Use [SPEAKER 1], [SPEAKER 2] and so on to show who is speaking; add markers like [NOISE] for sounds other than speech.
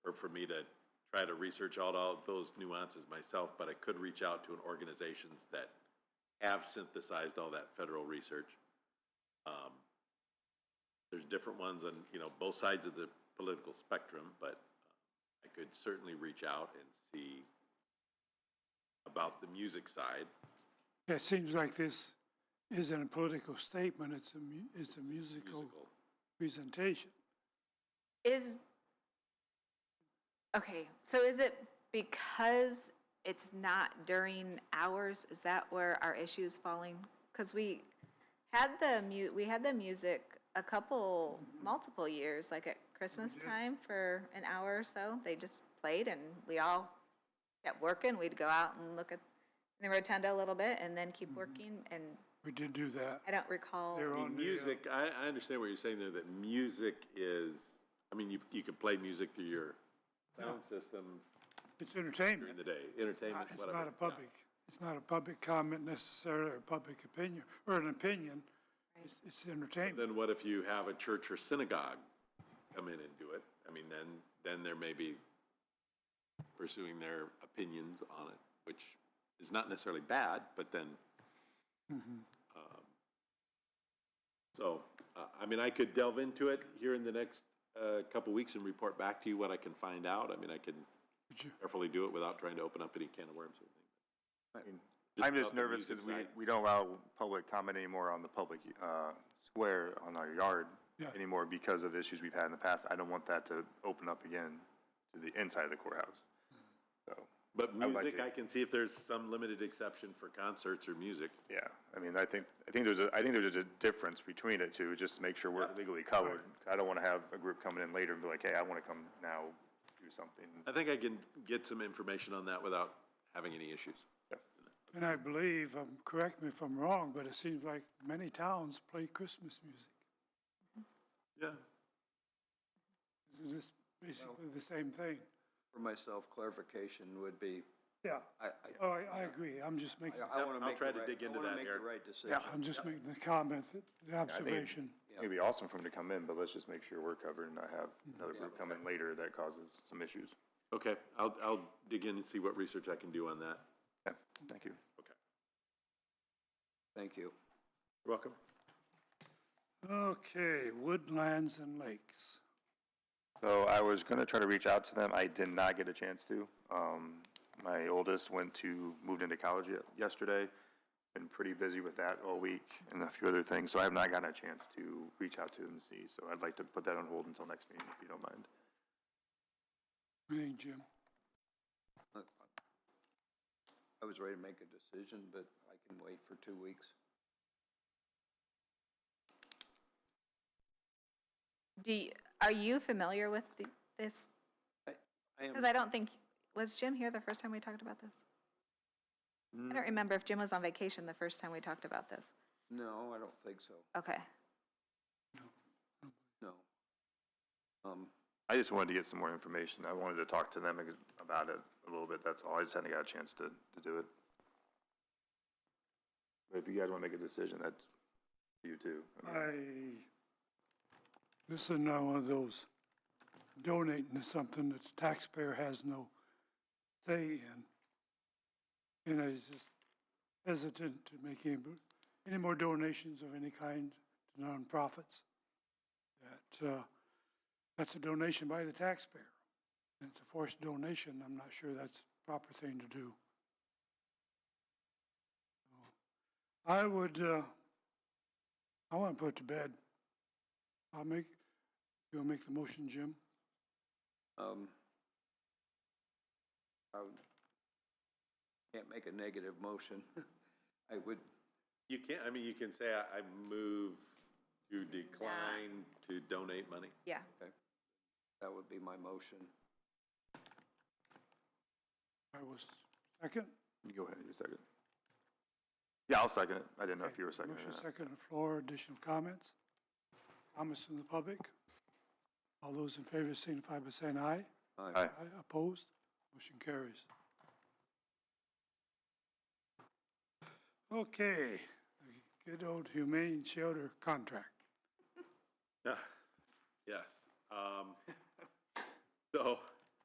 [SPEAKER 1] for me to try to research out all those nuances myself, but I could reach out to an organizations that have synthesized all that federal research. Um, There's different ones on, you know, both sides of the political spectrum, but uh, I could certainly reach out and see about the music side.
[SPEAKER 2] Yeah, It seems like this isn't a political statement, it's a, mu- it's a musical
[SPEAKER 1] Musical.
[SPEAKER 2] presentation.
[SPEAKER 3] Is, okay, so is it because it's not during hours? Is that where our issue is falling? Because we had the mu, we had the music a couple, multiple years, like at Christmas time for an hour or so. They just played and we all kept working. We'd go out and look at the rotunda a little bit and then keep working. And
[SPEAKER 2] We did do that.
[SPEAKER 3] I don't recall.
[SPEAKER 2] They're
[SPEAKER 1] I
[SPEAKER 2] on
[SPEAKER 1] mean,
[SPEAKER 2] the, uh,
[SPEAKER 1] music, I, I understand what you're saying there, that music is, I mean, you, you can play music through your sound system
[SPEAKER 2] It's
[SPEAKER 1] during
[SPEAKER 2] entertainment.
[SPEAKER 1] the day, entertainment,
[SPEAKER 2] It's
[SPEAKER 1] whatever.
[SPEAKER 2] not a
[SPEAKER 1] yeah.
[SPEAKER 2] public, it's not a public comment necessarily, or public opinion, or an opinion. It's, it's entertainment.
[SPEAKER 1] Then what if you have a church or synagogue come in and do it? I mean, then, then there may be pursuing their opinions on it, which is not necessarily bad, but then.
[SPEAKER 2] Mm-hmm.
[SPEAKER 1] um, So, uh, I mean, I could delve into it here in the next uh, couple weeks and report back to you what I can find out. I mean, I can
[SPEAKER 2] Would you-
[SPEAKER 1] carefully do it without trying to open up any can of worms or anything.
[SPEAKER 4] I mean,
[SPEAKER 1] Just
[SPEAKER 4] I'm just
[SPEAKER 1] about the
[SPEAKER 4] nervous
[SPEAKER 1] music
[SPEAKER 4] because we,
[SPEAKER 1] side.
[SPEAKER 4] we don't allow public comment anymore on the public uh, square on our yard
[SPEAKER 2] Yeah.
[SPEAKER 4] anymore because of issues we've had in the past. I don't want that to open up again to the inside of the courthouse. So,
[SPEAKER 1] But
[SPEAKER 4] I would like
[SPEAKER 1] music,
[SPEAKER 4] to-
[SPEAKER 1] I can see if there's some limited exception for concerts or music.
[SPEAKER 4] yeah, I mean, I think, I think there's a, I think there's a difference between it two, just to make sure we're legally covered. I don't want to have a group coming in later and be like, hey, I want to come now do something.
[SPEAKER 1] I think I can get some information on that without having any issues.
[SPEAKER 2] And I believe, um, correct me if I'm wrong, but it seems like many towns play Christmas music.
[SPEAKER 1] Yeah.
[SPEAKER 2] Isn't this basically the same thing?
[SPEAKER 5] For myself, clarification would be,
[SPEAKER 2] Yeah.
[SPEAKER 5] I, I,
[SPEAKER 2] Oh, I, I agree, I'm just making,
[SPEAKER 5] I want
[SPEAKER 1] I'll
[SPEAKER 5] to make the
[SPEAKER 1] try
[SPEAKER 5] right,
[SPEAKER 1] to dig
[SPEAKER 5] I
[SPEAKER 1] into that,
[SPEAKER 5] want to make the
[SPEAKER 1] Eric.
[SPEAKER 5] right decision.
[SPEAKER 2] yeah, I'm just making the comment, that- the observation.
[SPEAKER 4] It'd be awesome for them to come in, but let's just make sure we're covered and not have another group come in later that causes some issues.
[SPEAKER 1] Okay, I'll, I'll dig in and see what research I can do on that.
[SPEAKER 4] Yeah, thank you.
[SPEAKER 1] Okay.
[SPEAKER 5] Thank you.
[SPEAKER 1] You're welcome.
[SPEAKER 2] Okay, woodlands and lakes.
[SPEAKER 4] So I was gonna try to reach out to them. I did not get a chance to. Um, my oldest went to, moved into college ye- yesterday. Been pretty busy with that all week and a few other things, so I have not gotten a chance to reach out to them and see. So I'd like to put that on hold until next meeting, if you don't mind.
[SPEAKER 2] Hey, Jim.
[SPEAKER 5] I was ready to make a decision, but I can wait for two weeks.
[SPEAKER 3] Do, you- are you familiar with the- this
[SPEAKER 5] I am,
[SPEAKER 3] Because I don't think, was Jim here the first time we talked about this? I don't remember if Jim was on vacation the first time we talked about this.
[SPEAKER 5] no, I don't think so,
[SPEAKER 3] Okay.
[SPEAKER 5] no. Um,
[SPEAKER 4] I just wanted to get some more information. I wanted to talk to them ex- about it a little bit, that's all. I just hadn't got a chance to, to do it. But if you guys wanna make a decision, that's you too. I mean-
[SPEAKER 2] I, this is not one of those donating to something that the taxpayer has no say in. And I was just hesitant to make any, any more donations of any kind to nonprofits. That, uh, that's a donation by the taxpayer. And It's a forced donation, I'm not sure that's the proper thing to do. I would, uh, I want to put it to bed. I'll make, you'll make the motion, Jim?
[SPEAKER 5] um, I would- can't make a negative motion. [LAUGHS] I would,
[SPEAKER 1] You can, I mean, you can say I, I move to decline to donate money.
[SPEAKER 3] Yeah.
[SPEAKER 5] that would be my motion.
[SPEAKER 2] I was second.
[SPEAKER 4] You Go ahead, you second. Yeah, I'll second it. I didn't know if you were seconding
[SPEAKER 2] Motion
[SPEAKER 4] it.
[SPEAKER 2] second on the floor, additional comments? Comments from the public? All those in favor signify by saying aye.
[SPEAKER 4] Aye.
[SPEAKER 2] Aye, opposed? Motion carries. Okay, the good old humane shelter contract.
[SPEAKER 1] Yeah. Yes. Um, [LAUGHS] So,